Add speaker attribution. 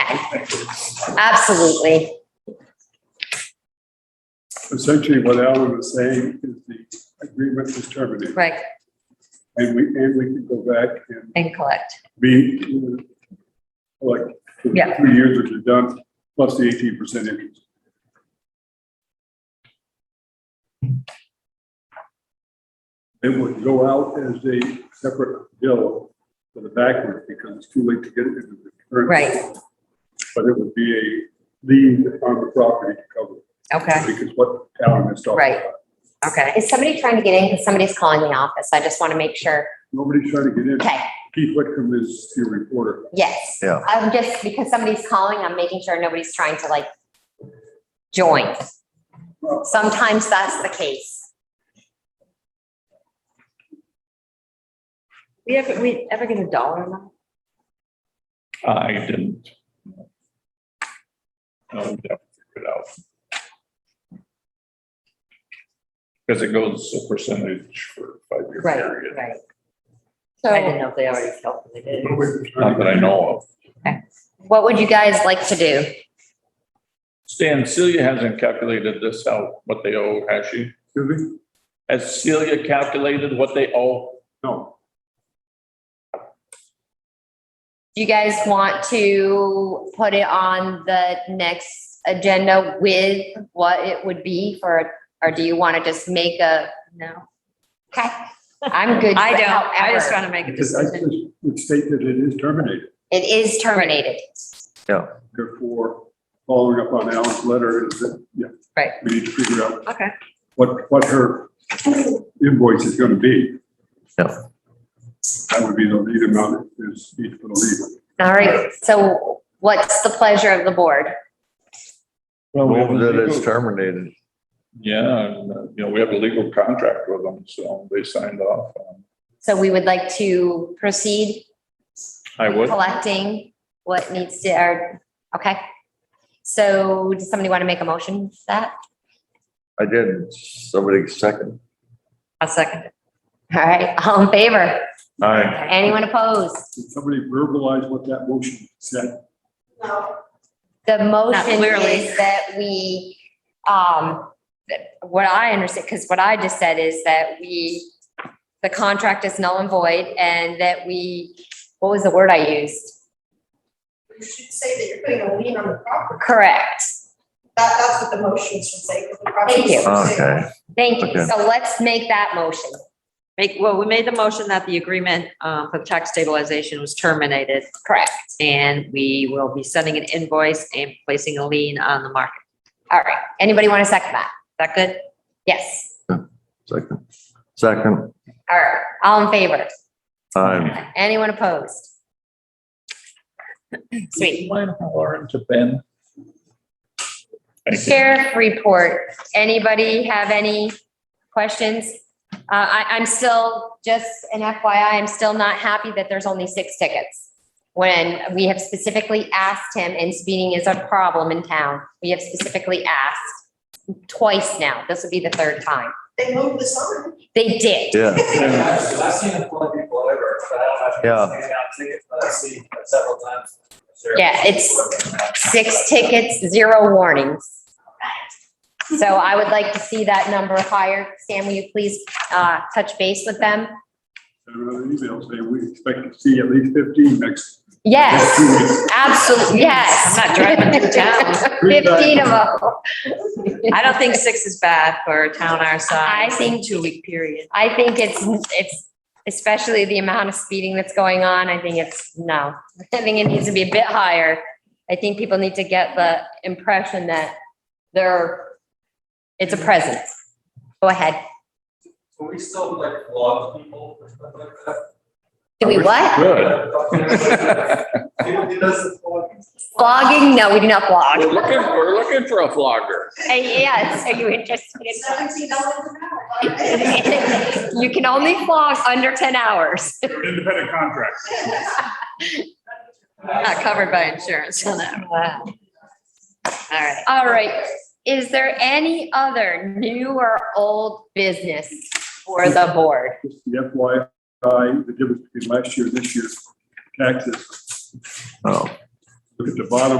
Speaker 1: Okay, absolutely.
Speaker 2: Essentially, what Alan was saying is the agreement is terminated,
Speaker 1: Right,
Speaker 2: and we, and we can go back and
Speaker 1: and collect.
Speaker 2: be, uh, like, for the
Speaker 1: Yeah.
Speaker 2: three years that you're done, plus the eighteen percent interest. It would go out as a separate bill for the backward, because it's too late to get it into the current.
Speaker 1: Right.
Speaker 2: But it would be a lien on the property to cover it,
Speaker 1: Okay,
Speaker 2: because what Alan is talking
Speaker 1: Right.
Speaker 2: about.
Speaker 1: okay. Is somebody trying to get in? Because somebody's calling the office. I just want to make sure.
Speaker 2: Nobody's trying to get in.
Speaker 1: Okay,
Speaker 2: Keith Whitcomb is your reporter.
Speaker 1: yes.
Speaker 3: Yeah.
Speaker 1: I'm just, because somebody's calling, I'm making sure nobody's trying to like join. Sometimes that's the case. We ever, we ever get a dollar amount?
Speaker 4: I didn't. No, we definitely figured it out. Because it goes a percentage for a five-year
Speaker 1: Right,
Speaker 4: period,
Speaker 1: right.
Speaker 5: I
Speaker 1: So
Speaker 5: didn't know if they already calculated. it.
Speaker 4: not that I know of.
Speaker 1: what would you guys like to do?
Speaker 4: Stan, Celia hasn't calculated this out, what they owe, has she?
Speaker 2: Excuse me?
Speaker 4: Has Celia calculated what they owe?
Speaker 2: No,
Speaker 1: Do you guys want to put it on the next agenda with what it would be for, or do you want to just make a, no? Okay, I'm good.
Speaker 5: I don't, I just
Speaker 1: however.
Speaker 5: want to make a
Speaker 2: because I
Speaker 5: decision.
Speaker 2: just would state that it is terminated.
Speaker 1: It is terminated.
Speaker 2: Therefore, following up on Alan's letter is that, yeah.
Speaker 1: Right.
Speaker 2: We need to figure out
Speaker 5: Okay,
Speaker 2: what, what her invoice is gonna be.
Speaker 3: Yeah.
Speaker 2: That would be the lead amount is each for the lead.
Speaker 1: All right, so what's the pleasure of the board?
Speaker 3: Move that it's terminated.
Speaker 4: Yeah, and, uh, you know, we have a legal contract with them, so they signed off. on-
Speaker 1: So we would like to proceed
Speaker 4: I would,
Speaker 1: Oh, collecting what needs to, or, okay. So does somebody want to make a motion for that?
Speaker 3: I did. Somebody second.
Speaker 5: I'll second it.
Speaker 1: All right, all in favor?
Speaker 3: Aye.
Speaker 1: Anyone opposed?
Speaker 2: Did somebody verbalize what that motion said?
Speaker 1: The motion
Speaker 5: clearly.
Speaker 1: is that we, um, that- what I understand, because what I just said is that we, the contract is null and void and that we, what was the word I used?
Speaker 6: You should say that you're putting a lien on the property.
Speaker 1: Correct.
Speaker 6: That, that's what the motion should say. 'cause the property
Speaker 1: Thank you.
Speaker 6: should say-
Speaker 3: Okay.
Speaker 1: Thank you.
Speaker 3: Okay.
Speaker 1: So let's make that motion.
Speaker 5: Make, well, we made the motion that the agreement um, for tax stabilization was terminated. Correct. And we will be sending an invoice and placing a lien on the market.
Speaker 1: All right. Anybody want to second that?
Speaker 5: Is that good?
Speaker 1: Yes.
Speaker 3: Second. Second.
Speaker 1: All right. All in favor?
Speaker 3: Aye.
Speaker 1: Anyone opposed? Sweet.
Speaker 4: Mine, Lauren, to Ben. Thank you.
Speaker 1: Sheriff report, anybody have any questions? Uh, I, I'm still, just an FYI, I'm still not happy that there's only six tickets. When we have specifically asked him, and speeding is a problem in town, we have specifically asked twice now, this would be the third time.
Speaker 6: They moved this on.
Speaker 1: They did,
Speaker 3: Yeah.
Speaker 7: Because I've seen a couple of people over, but I don't
Speaker 3: Yeah.
Speaker 7: have. to hand out tickets, but I've seen several times. Sure.
Speaker 1: Yeah, it's six tickets, zero warnings. So I would like to see that number higher. Sam, will you please, uh, touch base with them?
Speaker 2: Sent out an email saying we expect to see at least fifteen next. next
Speaker 1: Yes.
Speaker 2: two weeks.
Speaker 1: Absolutely, yes.
Speaker 5: I'm not driving through town.
Speaker 1: Fifteen of them.
Speaker 5: I don't think six is bad for a town our size.
Speaker 1: I think-
Speaker 5: Two-week period.
Speaker 1: I think it's, it's, especially the amount of speeding that's going on, I think it's, no. I think it needs to be a bit higher. I think people need to get the impression that they're, it's a presence. Go ahead.
Speaker 7: Will we still like log people or stuff like that?
Speaker 1: Do we what?
Speaker 4: Good.
Speaker 7: It doesn't log.
Speaker 1: Vlogging? No, we do not
Speaker 4: We're
Speaker 1: vlog.
Speaker 4: looking, we're looking for a vlogger.
Speaker 1: Uh, Yes, are you interested in vlogging?
Speaker 6: Seventeen dollars an hour.
Speaker 1: You can only vlog under ten hours.
Speaker 2: Independent contract.
Speaker 5: Not covered by insurance on that.
Speaker 1: Wow.
Speaker 5: All right.
Speaker 1: All right, is there any other new or old business for the board?
Speaker 2: Just the FYI, the difference between last year and this year's taxes.
Speaker 3: Oh,
Speaker 2: Look at the bottom